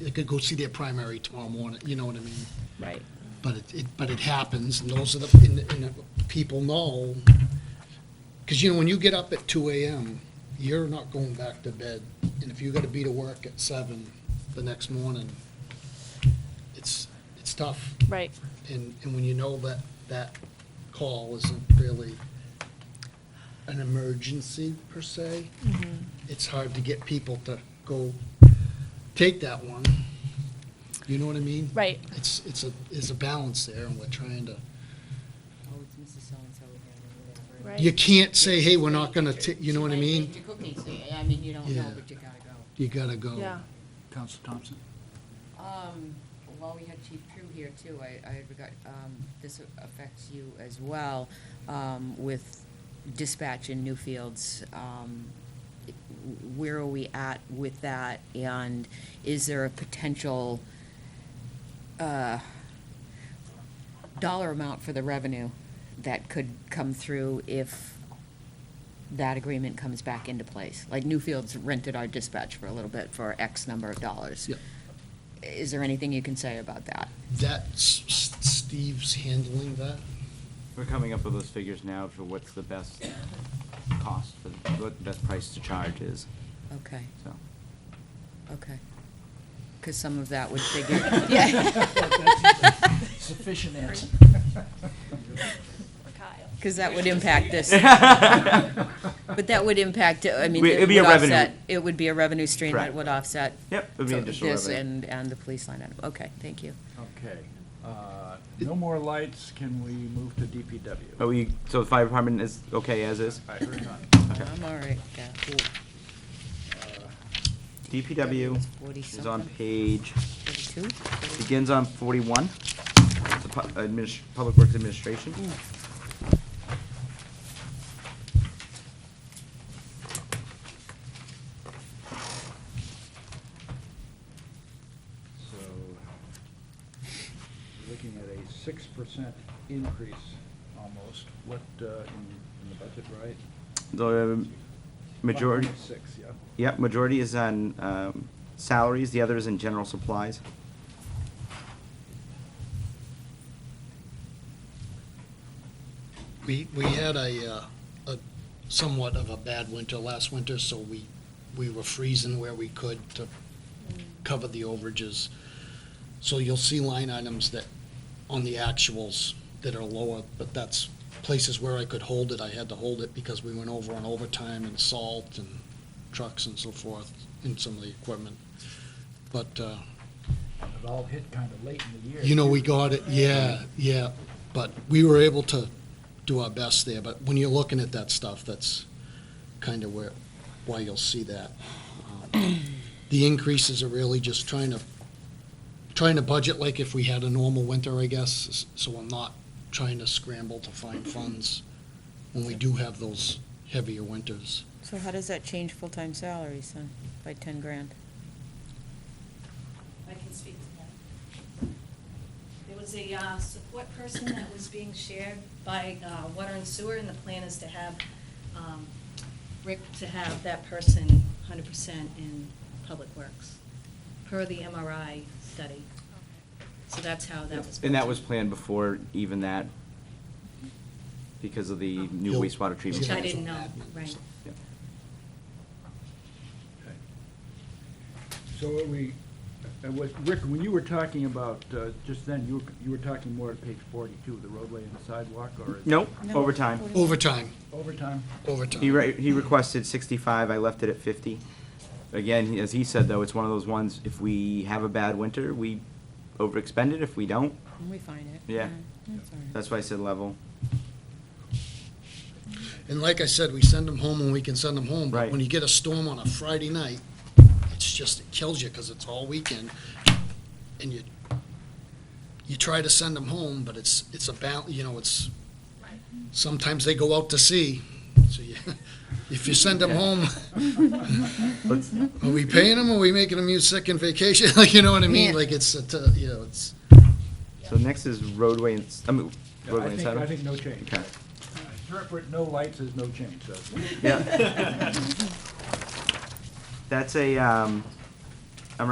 they could go see their primary tomorrow morning, you know what I mean? Right. But it, it, but it happens, and those are the, and, the- and the people know. Because, you know, when you get up at two AM, you're not going back to bed, and if you gotta be to work at seven the next morning, it's, it's tough. Right. And, and when you know that, that call isn't really an emergency per se, Mm-hmm. it's hard to get people to go take that one. You know what I mean? Right. It's, it's a, it's a balance there and we're trying to, Oh, it's Mrs. So-and-so again, or whatever. Right. you can't say, hey, we're not gonna, ta- you know what I She might mean? bake your cookies, so, I mean, you don't know, Yeah. but you gotta go. You gotta go. Yeah. Council Thompson? Um, while we had Chief Crew here too, I, I had regard, um, this affects you as well, um, with dispatch in Newfields. Um, where are we at with that, and is there a potential, uh, dollar amount for the revenue that could come through if that agreement comes back into place? Like Newfield's rented our dispatch for a little bit for X number of dollars. Yep. Is there anything you can say about that? That's, Steve's handling that. We're coming up with those figures now for what's the best cost, for what the best price to charge is, Okay, so. okay. Because some of that would figure, yeah, Sufficient answer. because that would impact this. But that would impact, I mean, We- it it'd be would a revenue. offset, it would be a revenue stream that Correct. would offset Yep, it'd be so- additional this revenue. and, and the police line item. Okay, thank you. Okay. uh, No more lights, can we move to DPW? Are Oh, we, so the fire department is okay as is? I heard none. I'm all right, yeah. Uh, DPW It's 40 is on something. page, Forty-two? Forty- begins on forty-one, It's the pu- adminis- Public Works Administration. Mm. So, looking at a six percent increase almost, what, uh, in in the budget, right? The Um, majority, 1.6, yeah. yep, majority is on um, salaries, the other is in general supplies. We, we had a, uh, a somewhat of a bad winter last winter, so we, we were freezing where we could to cover the overages. So you'll see line items that, on the actuals, that are lower, but that's places where I could hold it, I had to hold it because we went over on overtime and salt and trucks and so forth, and some of the equipment. But, uh, It all hit kind of late in the year. you know, we got it, yeah, yeah, but we were able to do our best there, but when you're looking at that stuff, that's kind of where, why you'll see that. Um, The increases are really just trying to, trying to budget like if we had a normal winter, I guess, s- so I'm not trying to scramble to find funds when we do have those heavier winters. So how does that change full-time salaries then, by ten grand? I can speak to that. There was a uh, support person that was being shared by uh, Water and Sewer, and the plan is to have, um, Rick, to have that person 100% in Public Works, per the MRI study. So that's how Oh, that was. And that built. was planned before even that, because of the new Bill- wastewater treatment. Which I plant. didn't know, right. Yep. Okay. So are we, uh, what, Rick, when you were talking about, uh, just then, you were, you were talking more at page forty-two, the roadway and the sidewalk, or? is it Nope, No. overtime. Overtime, Overtime? overtime. He, re- he requested sixty-five, I left it at fifty. Again, he- as he said, though, it's one of those ones, if we have a bad winter, we overexpend it, if we don't, We find it. Yeah. That's all right. that's why I said level. And like I said, we send them home when we can send them home. But Right. when you get a storm on a Friday night, it's just, it kills you because it's all weekend. And you, you try to send them home, but it's, it's a bal, you know, it's, sometimes they go out to sea. So you, if you send them Yeah. home, Let's- are we paying them? Are we making them use sick and vacation? Like, you know what I mean? Yeah. Like it's, a t- you know, it's, So next is roadway and, s- I mean, Yeah, I roadway and think, I think sidewalk. no change. Okay. Interpret no lights as no change, so. Yeah. That's a, um,